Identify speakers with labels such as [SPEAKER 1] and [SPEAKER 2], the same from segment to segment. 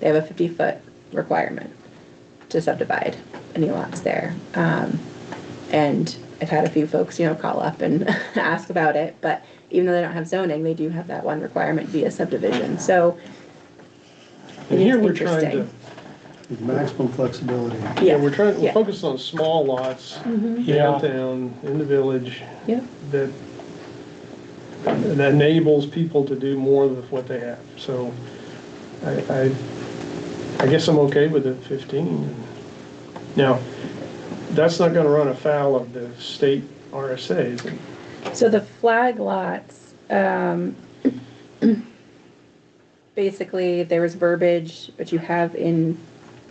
[SPEAKER 1] They have a fifty foot requirement to subdivide any lots there. Um, and I've had a few folks, you know, call up and ask about it, but even though they don't have zoning, they do have that one requirement via subdivision, so.
[SPEAKER 2] And here we're trying to,
[SPEAKER 1] Interesting.
[SPEAKER 3] with maximum flexibility.
[SPEAKER 2] yeah, we're trying,
[SPEAKER 1] Yeah. Mm-hmm.
[SPEAKER 2] we're focused on small lots, downtown, in the village,
[SPEAKER 1] Yeah,
[SPEAKER 2] that, that enables people to do more with what they have. So I, I, I guess I'm okay with it fifteen. Now, that's not gonna run afoul of the state RSA's.
[SPEAKER 1] so the flag lots, um, basically, there was verbiage, which you have in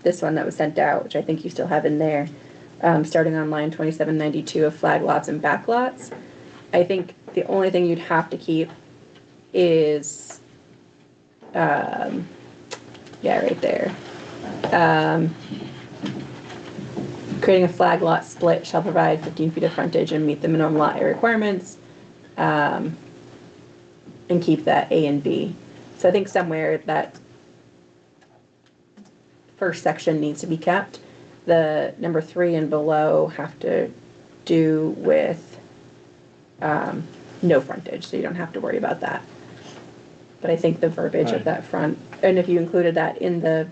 [SPEAKER 1] this one that was sent out, which I think you still have in there, um, starting on line twenty-seven ninety-two of flag lots and back lots. I think the only thing you'd have to keep is, um, yeah, right there. Um, creating a flag lot split shall provide fifteen feet of frontage and meet the minimum lot area requirements. Um, and keep that A and B. So I think somewhere that first section needs to be kept. The number three and below have to do with, um, no frontage, so you don't have to worry about that. But I think the verbiage of
[SPEAKER 4] Right.
[SPEAKER 1] that front, and if you included that in the,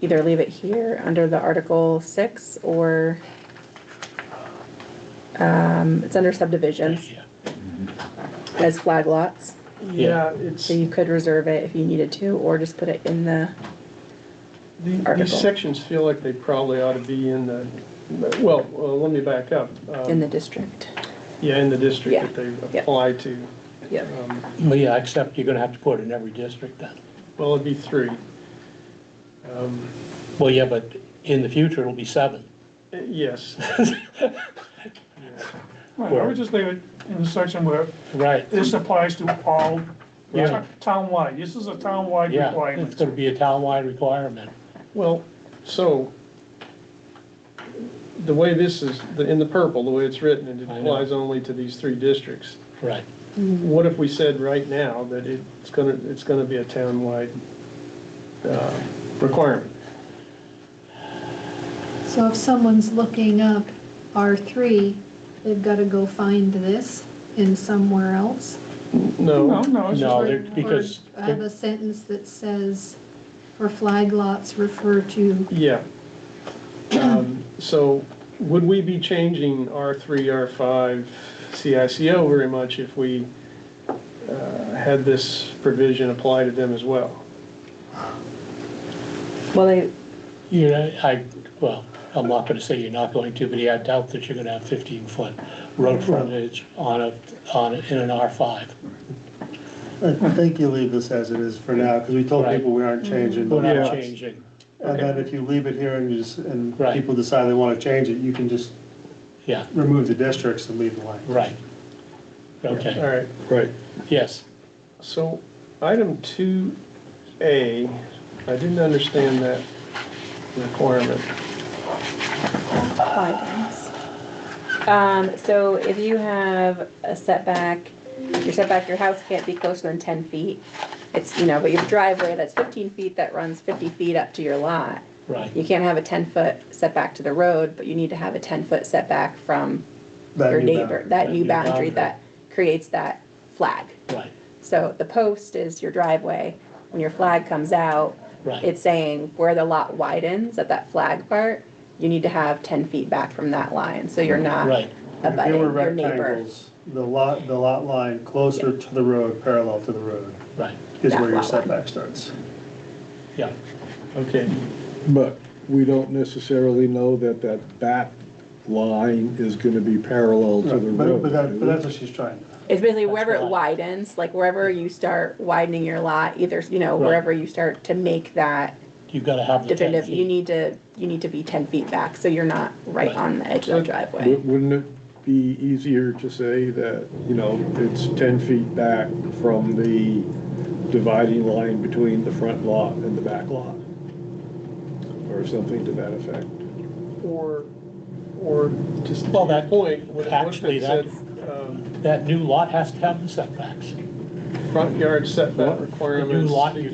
[SPEAKER 1] either leave it here under the Article six or, um, it's under subdivisions
[SPEAKER 4] Yeah.
[SPEAKER 1] as flag lots.
[SPEAKER 2] Yeah, it's,
[SPEAKER 1] So you could reserve it if you needed to, or just put it in the,
[SPEAKER 2] the-
[SPEAKER 1] Article.
[SPEAKER 2] these sections feel like they probably ought to be in the, well, well, let me back up. Um,
[SPEAKER 1] in the district.
[SPEAKER 2] Yeah, in the district
[SPEAKER 1] Yeah,
[SPEAKER 2] that they
[SPEAKER 1] yeah.
[SPEAKER 2] apply to.
[SPEAKER 1] Yep.
[SPEAKER 2] Um,
[SPEAKER 4] Well, yeah, except you're gonna have to put it in every district then.
[SPEAKER 2] Well, it'd be three. Um,
[SPEAKER 4] Well, yeah, but in the future, it'll be seven.
[SPEAKER 2] Eh, Yes,
[SPEAKER 5] Right, I would just leave it in the section where
[SPEAKER 4] Right,
[SPEAKER 5] this applies to all,
[SPEAKER 4] Yeah.
[SPEAKER 5] townwide, this is a townwide
[SPEAKER 4] yeah, it's
[SPEAKER 5] requirement.
[SPEAKER 4] gonna be a townwide requirement.
[SPEAKER 2] well, so the way this is, the- in the purple, the way it's written, it
[SPEAKER 4] I know.
[SPEAKER 2] applies only to these three districts.
[SPEAKER 4] Right,
[SPEAKER 2] What if we said right now that it's gonna, it's gonna be a townwide uh, requirement?
[SPEAKER 6] So if someone's looking up R3, they've got to go find this in somewhere else.
[SPEAKER 5] No,
[SPEAKER 2] No,
[SPEAKER 5] no, it's just.
[SPEAKER 4] no,
[SPEAKER 5] right-
[SPEAKER 4] Oh, they're- because,
[SPEAKER 6] I have a sentence that says, for flag lots, refer to,
[SPEAKER 2] yeah. Um, So would we be changing R3, R5, CICO very much if we uh, had this provision apply to them as well?
[SPEAKER 1] Well, they,
[SPEAKER 4] you know, I, well, I'm not gonna say you're not going to, but yeah, I doubt that you're gonna have fifteen foot road frontage on a, on, a- in an R five.
[SPEAKER 3] I think you leave this as it is for now, because we told
[SPEAKER 4] Right.
[SPEAKER 3] people we aren't changing. the
[SPEAKER 4] We're not
[SPEAKER 3] lots.
[SPEAKER 4] changing,
[SPEAKER 3] And then if you leave it here and you just, and
[SPEAKER 4] Right.
[SPEAKER 3] people decide they want to change it, you can just
[SPEAKER 4] yeah,
[SPEAKER 3] remove the districts and leave the line.
[SPEAKER 4] right.
[SPEAKER 2] All
[SPEAKER 4] Okay,
[SPEAKER 2] right,
[SPEAKER 3] Right.
[SPEAKER 4] yes,
[SPEAKER 2] so item two A, I didn't understand that requirement.
[SPEAKER 1] Um, so if you have a setback, your setback, your house can't be closer than ten feet. It's, you know, but your driveway that's fifteen feet that runs fifty feet up to your lot.
[SPEAKER 4] right,
[SPEAKER 1] You can't have a ten foot setback to the road, but you need to have a ten foot setback from your neighbor, that new boundary that creates that flag.
[SPEAKER 4] right,
[SPEAKER 1] So the post is your driveway. When your flag comes out,
[SPEAKER 4] Right.
[SPEAKER 1] it's saying where the lot widens at that flag part, you need to have ten feet back from that line, so you're not
[SPEAKER 4] right,
[SPEAKER 3] If they
[SPEAKER 1] abutting
[SPEAKER 3] were
[SPEAKER 1] your neighbor.
[SPEAKER 3] rectangles, the lot, the lot line closer to the road, parallel to the road,
[SPEAKER 4] right,
[SPEAKER 3] is
[SPEAKER 1] That
[SPEAKER 3] where your
[SPEAKER 1] lot line.
[SPEAKER 3] setback starts.
[SPEAKER 4] yeah,
[SPEAKER 2] Okay,
[SPEAKER 7] But we don't necessarily know that that back line is gonna be parallel to the
[SPEAKER 3] But,
[SPEAKER 7] road.
[SPEAKER 3] but that,
[SPEAKER 7] do
[SPEAKER 3] but
[SPEAKER 7] we?
[SPEAKER 3] that's what she's trying.
[SPEAKER 1] It's basically wherever it
[SPEAKER 4] fine.
[SPEAKER 1] widens, like wherever you start widening your lot, either, you know,
[SPEAKER 4] Right.
[SPEAKER 1] wherever you start to make that
[SPEAKER 4] you've gotta have the ten
[SPEAKER 1] definitive, you
[SPEAKER 4] feet.
[SPEAKER 1] need to, you need to be ten feet back, so you're not right
[SPEAKER 4] Right.
[SPEAKER 1] on the edge of the driveway.
[SPEAKER 7] Wou- Wouldn't it be easier to say that, you know, it's ten feet back from the dividing line between the front lot and the back lot? Or something to that effect?
[SPEAKER 2] or, or just.
[SPEAKER 4] Well, that-
[SPEAKER 2] point, what- what if
[SPEAKER 4] actually,
[SPEAKER 2] it
[SPEAKER 4] that-
[SPEAKER 2] said, um,
[SPEAKER 4] That new lot has to have the setbacks.
[SPEAKER 2] front yard setback
[SPEAKER 7] What?
[SPEAKER 2] requirements.
[SPEAKER 4] New lot, you